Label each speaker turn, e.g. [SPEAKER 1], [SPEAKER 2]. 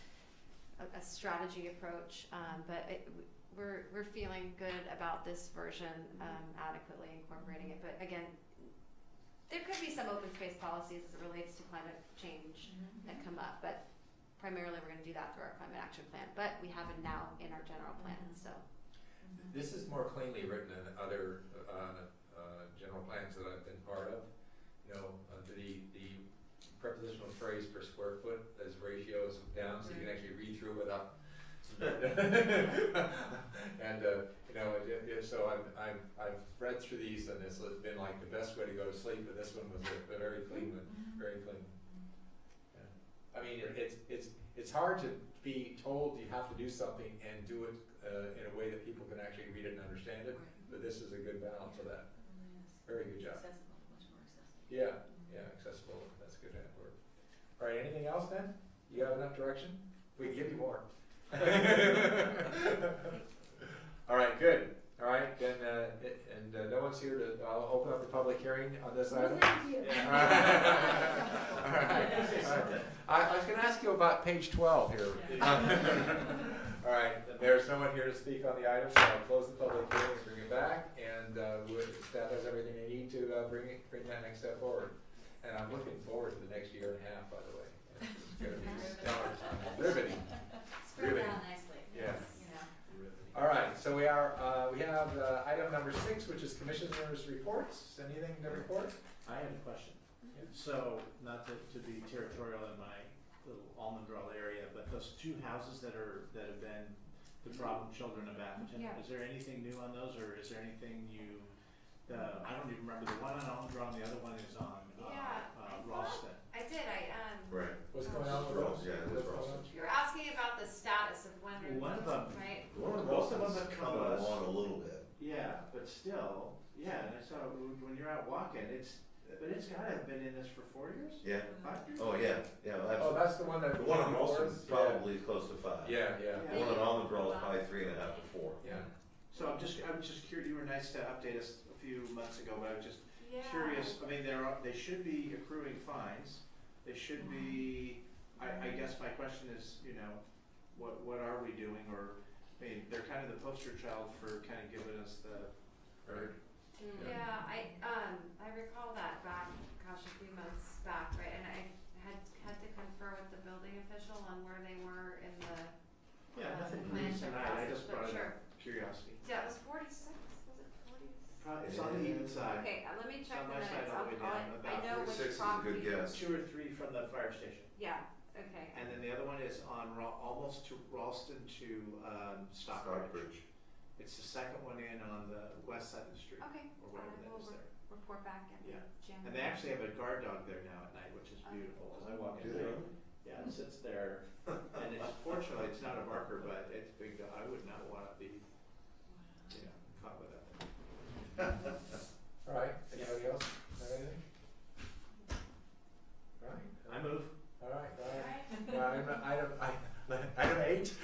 [SPEAKER 1] strategy approach, um, but it, we're we're feeling good about this version um, adequately incorporating it. But again, there could be some open space policies as it relates to climate change that come up, but primarily we're going to do that through our climate action plan. But we have it now in our general plan, so
[SPEAKER 2] This is more cleanly written than other uh, uh, general plans that I've been part of. You know, uh, the, the prepositional phrase per square foot as ratio is down, so you can actually read through without. and uh, you know, it, it, it- so I'm, I'm, I've read through these, and it's been like the best way to go to sleep. But this one was a, a very clean one, very clean. Yeah. I mean, it, it's it's it's hard to be told you have to do something and do it uh, in a way that people can actually read it and understand it. But this is a good balance of that. Very good job.
[SPEAKER 3] Accessible, much more accessible.
[SPEAKER 2] Yeah, yeah, accessible. That's a good ad word. All right, anything else then? You have enough direction? We can give you more. All right, good. All right, then, uh, it- and uh, no one's here to, I'll open up the public hearing on this item. All right. All right. I, I was gonna ask you about page twelve here. All right, there's no one here to speak on the item, so I'll close the public hearing and bring it back, and, uh, we- staff has everything they need to, uh, bring it, bring that next step forward. And I'm looking forward to the next year and a half, by the way. It's gonna be stellar. Riveting.
[SPEAKER 3] Spread
[SPEAKER 2] Really?
[SPEAKER 3] it out nicely.
[SPEAKER 2] Yeah.
[SPEAKER 3] You know.
[SPEAKER 2] All right, so we are, uh, we have, uh, item number six, which is commissioners' reports. Anything to report?
[SPEAKER 4] I have a question. So, not to, to be territorial in my little almondrell area, but those two houses that are, that have been the problem children of Atherton,
[SPEAKER 1] Yeah.
[SPEAKER 4] is there anything new on those, or is there anything you, uh, I don't even remember, the one on Almondrell and the other one is on, uh,
[SPEAKER 1] Yeah, I
[SPEAKER 4] uh,
[SPEAKER 1] thought-
[SPEAKER 4] Ralston.
[SPEAKER 1] I did. I um,
[SPEAKER 5] Right.
[SPEAKER 2] What's going on with those?
[SPEAKER 5] Yeah,
[SPEAKER 2] What's
[SPEAKER 5] that's
[SPEAKER 2] going on?
[SPEAKER 5] Ralston.
[SPEAKER 1] you were asking about the status of when
[SPEAKER 4] Well, one of them-
[SPEAKER 1] right?
[SPEAKER 4] Most of them have come us.
[SPEAKER 5] Coming along a little bit.
[SPEAKER 4] Yeah, but still, yeah, and I saw, when when you're out walking, it's, but it's gotta have been in this for four years,
[SPEAKER 5] Yeah.
[SPEAKER 4] five years?
[SPEAKER 5] Oh, yeah. Yeah.
[SPEAKER 2] Oh,
[SPEAKER 5] Well, that's,
[SPEAKER 2] that's the one that.
[SPEAKER 5] the one on Ralston is
[SPEAKER 2] Yeah.
[SPEAKER 5] probably close to five.
[SPEAKER 2] Yeah, yeah.
[SPEAKER 5] The one on Almond is probably three and a half to four.
[SPEAKER 2] Yeah.
[SPEAKER 4] So I'm just, I'm just curious, you were nice to update us a few months ago, but I was just
[SPEAKER 1] Yeah.
[SPEAKER 4] curious, I mean, there are, they should be accruing fines, they should be, I, I guess my question is, you know, what, what are we doing, or, I mean, they're kind of the poster child for kind of giving us the,
[SPEAKER 2] Right.
[SPEAKER 4] Mm.
[SPEAKER 1] Yeah. I um I recall that back gosh a few months back, right? And I had had to confer with the building official on where they were in the
[SPEAKER 4] yeah,
[SPEAKER 1] uh,
[SPEAKER 4] nothing
[SPEAKER 1] the
[SPEAKER 4] new
[SPEAKER 1] plan
[SPEAKER 4] tonight, I
[SPEAKER 1] process,
[SPEAKER 4] just
[SPEAKER 1] but
[SPEAKER 4] brought it
[SPEAKER 1] sure.
[SPEAKER 4] up, curiosity.
[SPEAKER 1] Yeah, it was forty six. Was it forty six?
[SPEAKER 4] Pro- It's on the even side,
[SPEAKER 1] Okay, uh, let me check
[SPEAKER 4] on
[SPEAKER 1] the
[SPEAKER 4] my
[SPEAKER 1] minutes.
[SPEAKER 4] side
[SPEAKER 1] I'll,
[SPEAKER 4] all the way
[SPEAKER 1] I'll-
[SPEAKER 4] down,
[SPEAKER 1] I
[SPEAKER 4] about
[SPEAKER 1] know
[SPEAKER 5] Six
[SPEAKER 1] which
[SPEAKER 5] is a
[SPEAKER 1] property.
[SPEAKER 5] good guess.
[SPEAKER 4] two or three from the fire station,
[SPEAKER 1] Yeah. Okay.
[SPEAKER 4] and then the other one is on Ra- almost to Ralston to, um, Stockbridge.
[SPEAKER 5] Stockbridge.
[SPEAKER 4] It's the second one in on the west side of the street,
[SPEAKER 1] Okay. I
[SPEAKER 4] or whatever that
[SPEAKER 1] will re-
[SPEAKER 4] is there.
[SPEAKER 1] report back in
[SPEAKER 4] Yeah.
[SPEAKER 1] January.
[SPEAKER 4] And they actually have a guard dog there now at night, which is beautiful, 'cause I walk in there, yeah, it sits there, and it